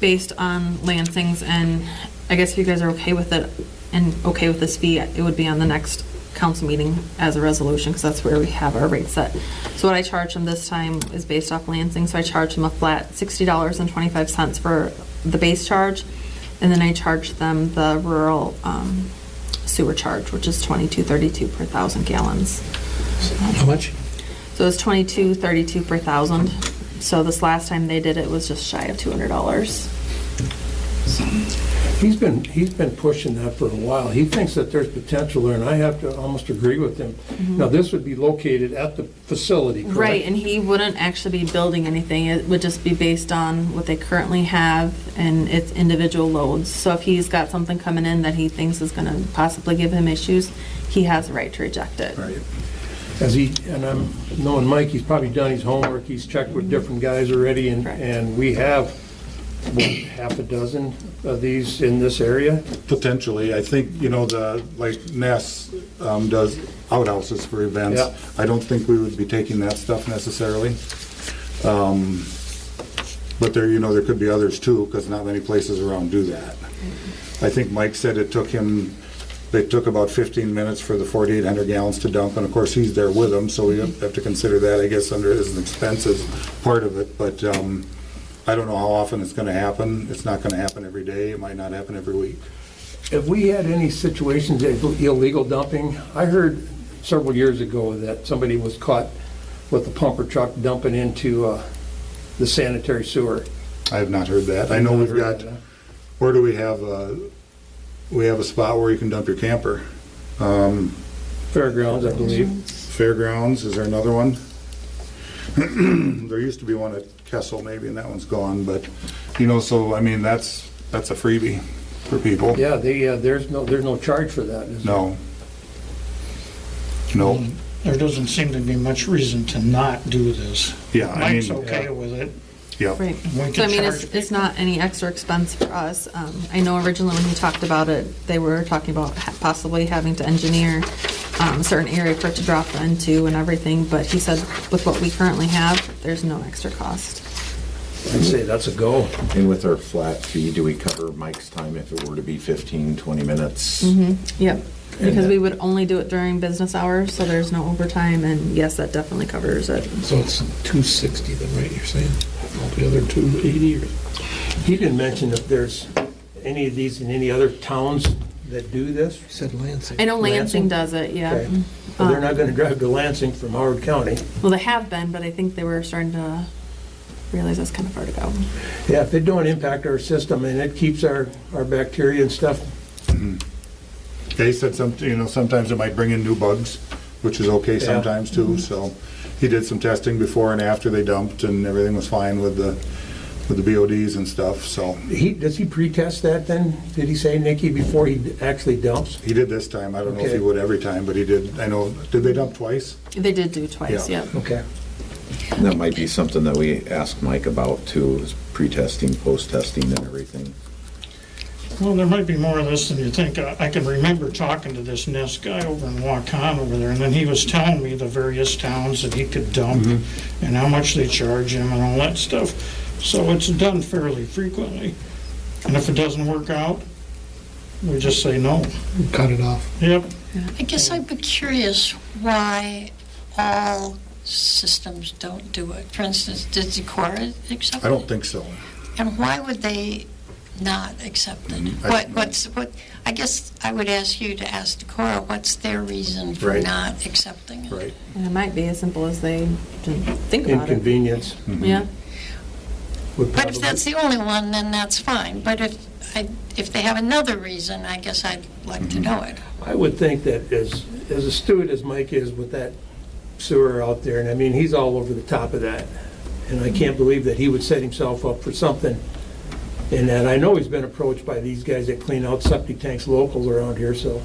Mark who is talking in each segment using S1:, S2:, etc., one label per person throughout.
S1: based on Lansing's, and I guess if you guys are okay with it and okay with this fee, it would be on the next council meeting as a resolution, because that's where we have our rate set. So what I charge them this time is based off Lansing, so I charge them a flat sixty dollars and twenty-five cents for the base charge, and then I charge them the rural um, sewer charge, which is twenty-two thirty-two per thousand gallons.
S2: How much?
S1: So it's twenty-two thirty-two per thousand. So this last time they did it was just shy of two hundred dollars.
S2: He's been, he's been pushing that for a while. He thinks that there's potential there, and I have to almost agree with him. Now, this would be located at the facility, correct?
S1: Mm-hmm. Right, and he wouldn't actually be building anything. It would just be based on what they currently have and its individual loads. So if he's got something coming in that he thinks is gonna possibly give him issues, he has the right to reject it.
S2: Right. As he, and I'm knowing Mike, he's probably done his homework, he's checked with different guys already, and,
S1: Correct.
S2: and we have, what, half a dozen of these in this area?
S3: Potentially, I think, you know, the, like Ness um, does outhouses for events.
S2: Yeah.
S3: I don't think we would be taking that stuff necessarily. Um, But there, you know, there could be others too, because not many places around do that. I think Mike said it took him, they took about 15 minutes for the 4,800 gallons to dump, and of course, he's there with them, so we have to consider that, I guess, under his expenses part of it, but um, I don't know how often it's going to happen. It's not going to happen every day, it might not happen every week.
S2: Have we had any situations of illegal dumping? I heard several years ago that somebody was caught with a pumper truck dumping into uh, the sanitary sewer.
S3: I have not heard that. I know we've got, where do we have, uh, we have a spot where you can dump your camper. Um,
S2: Fairgrounds, I believe.
S3: Fairgrounds, is there another one? There used to be one at Kessel maybe, and that one's gone, but, you know, so, I mean, that's, that's a freebie for people.
S2: Yeah, they, uh, there's no, there's no charge for that. is there?
S3: No. No,
S4: There doesn't seem to be much reason to not do this.
S3: yeah, I
S4: Mike's
S3: mean,
S4: okay with it.
S3: yeah.
S1: Right.
S4: We
S1: So I
S4: can
S1: mean, it's,
S4: charge.
S1: it's not any extra expense for us. Um, I know originally when he talked about it, they were talking about ha- possibly having to engineer um, a certain area for it to drop into and everything, but he said with what we currently have, there's no extra cost.
S2: I'd say that's a go.
S5: And with our flat fee, do we cover Mike's time if it were to be 15, 20 minutes?
S1: Yep, because
S5: And-
S1: we would only do it during business hours, so there's no overtime, and yes, that definitely covers it.
S6: So it's 260 then, right, you're saying? Altogether 280 or?
S2: He didn't mention if there's any of these in any other towns that do this.
S6: Said Lansing.
S1: I know Lansing
S2: Lansing?
S1: does it, yeah. Mm-hmm.
S2: Okay. But They're not going to drive to Lansing from Howard County.
S1: Well, they have been, but I think they were starting to realize that's kind of far to go.
S2: Yeah, if it don't impact our system and it keeps our, our bacteria and stuff,
S3: They said some, you know, sometimes it might bring in new bugs, which is okay
S2: Yeah. Mm-hmm.
S3: sometimes too, so. He did some testing before and after they dumped, and everything was fine with the, with the BODs and stuff, so.
S2: he, does he pre-test that then? Did he say, Nikki, before he actually dumps?
S3: He did this time, I don't know if he
S2: Okay.
S3: would every time, but he did, I know, did they dump twice?
S1: They did do twice,
S3: Yeah.
S1: yep.
S2: Okay.
S5: That might be something that we ask Mike about too, is pre-testing, post-testing and everything.
S4: Well, there might be more of this than you think. I I can remember talking to this Ness guy over in Waukon over there, and then he was telling me the various towns that he could dump
S3: Mm-hmm.
S4: and how much they charge him and all that stuff. So it's done fairly frequently. And if it doesn't work out, we just say no.
S6: Cut it off.
S4: Yep,
S7: I guess I'd be curious why all systems don't do it. For instance, did Decorah accept it?
S3: I don't think so.
S7: And why would they not accept it?
S3: I
S7: What,
S3: don't know.
S7: what's, what, I guess I would ask you to ask Decorah, what's their reason for
S3: Right.
S7: not accepting it?
S3: Right.
S1: And it might be as simple as they didn't think about it.
S2: Inconvenience
S1: Yeah,
S2: would
S7: But
S2: probably,
S7: if that's the only one, then that's fine. But if, I- if they have another reason, I guess I'd like
S3: Mm-hmm.
S7: to know it.
S2: I would think that as, as astute as Mike is with that sewer out there, and I mean, he's all over the top of that. And I can't believe that he would set himself up for something. And that I know he's been approached by these guys that clean out septic tanks local around here, so.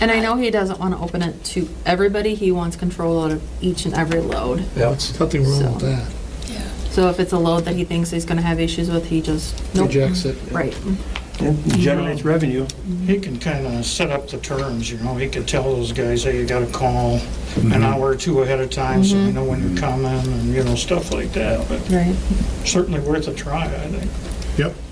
S1: and I know he doesn't want to open it to everybody, he wants control out of each and every load.
S6: There's nothing wrong with
S1: So-
S6: that.
S7: Yeah.
S1: So if it's a load that he thinks he's going to have issues with, he just, nope.
S6: Rejects it.
S1: Right.
S2: And generates revenue.
S4: he can kind of set up the terms, you know, he could tell those guys, hey, you gotta call an hour or two ahead of time, so we know when you're coming, and, you know, stuff like that, but
S1: Right.
S4: certainly worth a try, I think.
S3: Yep.